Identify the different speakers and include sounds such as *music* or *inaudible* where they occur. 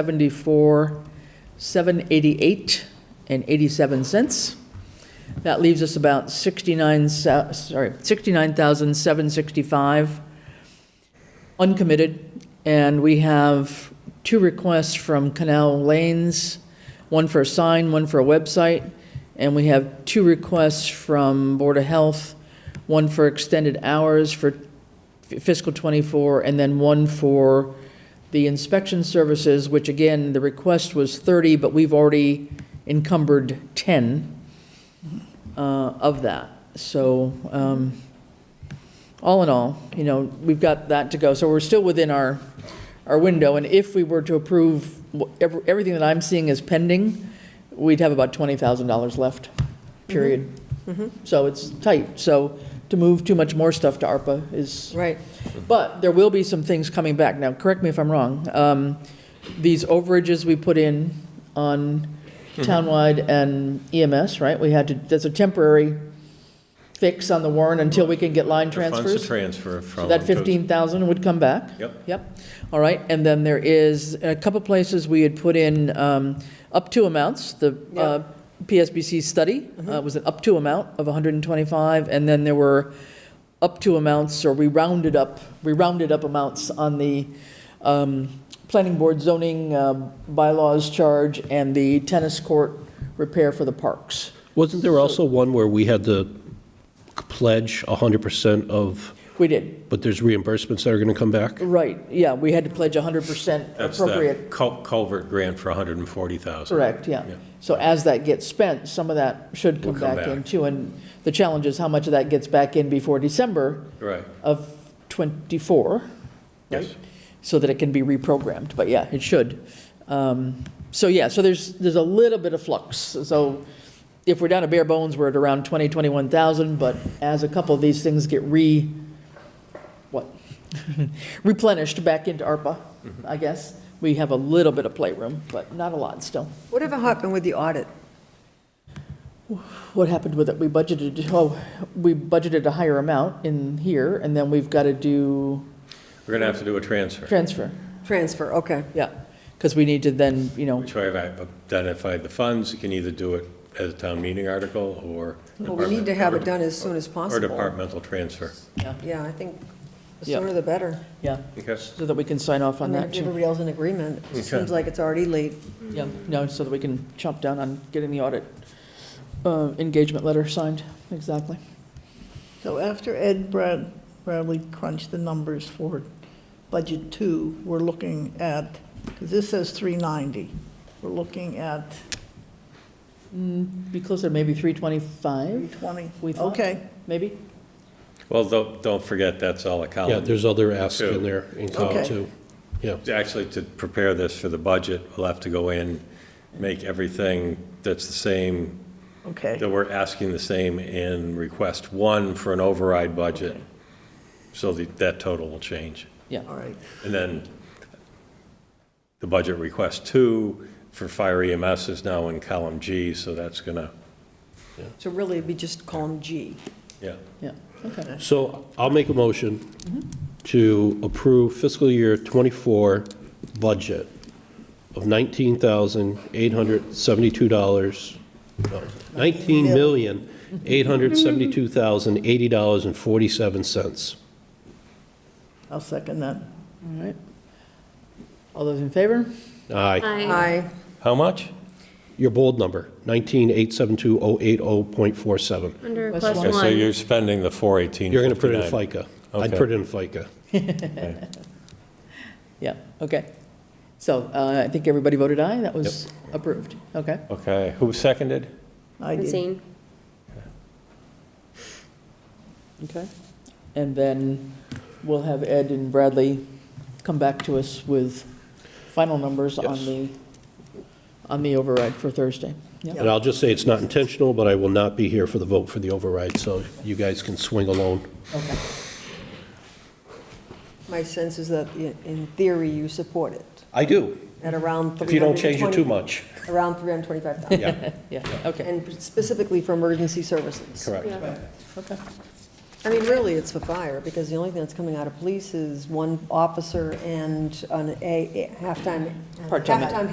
Speaker 1: 774, 788 and 87 cents. That leaves us about 69, so- sorry, 69,765 uncommitted. And we have two requests from Canal Lanes, one for a sign, one for a website. And we have two requests from Board of Health, one for extended hours for fiscal '24, and then one for the inspection services, which again, the request was 30, but we've already encumbered 10 uh, of that. So um, all in all, you know, we've got that to go. So we're still within our, our window. And if we were to approve, wh- ev- everything that I'm seeing is pending, we'd have about $20,000 left, period. So it's tight. So to move too much more stuff to ARPA is,
Speaker 2: Right.
Speaker 1: but there will be some things coming back. Now, correct me if I'm wrong. Um, These overages we put in on
Speaker 3: Mm-hmm.
Speaker 1: townwide and EMS, right? We had to, that's a temporary fix on the warrant until we can get line
Speaker 3: The Funds to
Speaker 1: transfers.
Speaker 3: transfer from.
Speaker 1: So that
Speaker 3: to-
Speaker 1: 15,000 would come back?
Speaker 3: Yep.
Speaker 1: Yep. All right. And then there is a couple places we had put in um, up to amounts, the uh, PSBC study uh, was an up to amount of 125, and then there were up to amounts, or we rounded up, we rounded up amounts on the um, planning board zoning uh, bylaws charge and the tennis court repair for the parks.
Speaker 4: Wasn't there also one where we had to pledge 100% of,
Speaker 1: We did,
Speaker 4: but there's reimbursements that are going to come back?
Speaker 1: right, yeah, we had to pledge 100%
Speaker 3: That's
Speaker 1: appropriate
Speaker 3: that cul- culvert grant for 140,000.
Speaker 1: Correct, yeah.
Speaker 3: Yeah.
Speaker 1: So as that gets spent, some of that should come
Speaker 3: Will come
Speaker 1: back in
Speaker 3: back.
Speaker 1: too. And the challenge is how much of that gets back in before December
Speaker 3: Right,
Speaker 1: of '24,
Speaker 3: yes.
Speaker 1: so that it can be reprogrammed. But yeah, it should. Um, So yeah, so there's, there's a little bit of flux. So if we're down to bare bones, we're at around 20, 21,000, but as a couple of these things get re, what? *laughs* Replenished back into ARPA,
Speaker 3: Mm-hmm.
Speaker 1: I guess, we have a little bit of playroom, but not a lot still.
Speaker 2: Whatever happened with the audit?
Speaker 1: What happened with it? We budgeted, oh, we budgeted a higher amount in here, and then we've got to do
Speaker 3: We're going to have to do a transfer,
Speaker 1: transfer.
Speaker 2: Transfer, okay.
Speaker 1: Yeah, because we need to then, you know,
Speaker 3: which way I've identified the funds. You can either do it as a town meeting article or.
Speaker 2: Well, we need to
Speaker 3: department-
Speaker 2: have
Speaker 3: or-
Speaker 2: it done as soon as
Speaker 3: Or
Speaker 2: possible.
Speaker 3: departmental transfer.
Speaker 1: yeah,
Speaker 2: Yeah, I think the
Speaker 1: Yeah.
Speaker 2: sooner the better.
Speaker 1: yeah,
Speaker 3: Okay.
Speaker 1: so that we can sign off
Speaker 2: I
Speaker 1: on
Speaker 2: mean,
Speaker 1: that
Speaker 2: if
Speaker 1: too.
Speaker 2: everybody else in agreement, it seems
Speaker 3: Okay.
Speaker 2: like it's already late.
Speaker 1: Yeah, no, so that we can chop down on getting the audit uh, engagement letter signed, exactly.
Speaker 5: So after Ed Brad, Bradley crunched the numbers for budget two, we're looking at, because this says three ninety, we're looking at
Speaker 1: Be closer, to maybe
Speaker 5: three
Speaker 1: 325,
Speaker 5: twenty.
Speaker 1: We thought-
Speaker 5: Okay,
Speaker 1: maybe?
Speaker 3: Well, don't, don't forget, that's all a column.
Speaker 4: Yeah, there's other asks
Speaker 3: Two.
Speaker 4: in there in column
Speaker 5: Okay.
Speaker 4: two. Yeah.
Speaker 3: Actually, to prepare this for the budget, we'll have to go in, make everything that's the same,
Speaker 5: okay,
Speaker 3: that we're asking the same and request one for an override budget. So the- that total will change.
Speaker 1: Yeah,
Speaker 5: all right.
Speaker 3: And then the budget request two for fire EMS is now in column G, so that's gonna,
Speaker 2: So really, it'd be just column G.
Speaker 3: yeah.
Speaker 1: yeah, okay,
Speaker 4: So I'll make a motion to approve fiscal year '24 budget of $19,872, no, $19,872,080.47.
Speaker 5: I'll second that.
Speaker 1: all right. All those in favor?
Speaker 4: Aye.
Speaker 1: Uh,
Speaker 2: Aye.
Speaker 3: How much?
Speaker 4: Your bold number, 19,872,080.47.
Speaker 6: Under
Speaker 1: Plus
Speaker 6: plus
Speaker 1: one.
Speaker 3: Okay, so
Speaker 6: one.
Speaker 3: you're spending the four eighteen.
Speaker 4: You're going to put it in FICA. I'd
Speaker 3: Okay.
Speaker 4: put it in FICA.
Speaker 1: Yeah, okay. So uh, I think everybody voted aye, that was approved, okay.
Speaker 3: Okay, who seconded?
Speaker 5: I did,
Speaker 6: Francine.
Speaker 1: Okay. And then we'll have Ed and Bradley come back to us with final numbers on
Speaker 4: Yes.
Speaker 1: the, on the override for Thursday. Yeah,
Speaker 4: And I'll just say it's not intentional, but I will not be here for the vote for the override, so you guys can swing alone.
Speaker 1: okay.
Speaker 2: My sense is that i- in theory, you support it
Speaker 4: I do,
Speaker 2: at around 320.
Speaker 4: if you don't change it too much.
Speaker 2: Around 325,000.
Speaker 4: Yeah,
Speaker 1: Yeah, okay,
Speaker 2: And specifically for emergency services.
Speaker 4: correct.
Speaker 6: Yeah.
Speaker 1: okay.
Speaker 2: I mean, really, it's for fire, because the only thing that's coming out of police is one officer and an a, halftime,
Speaker 1: Part-time.
Speaker 2: halftime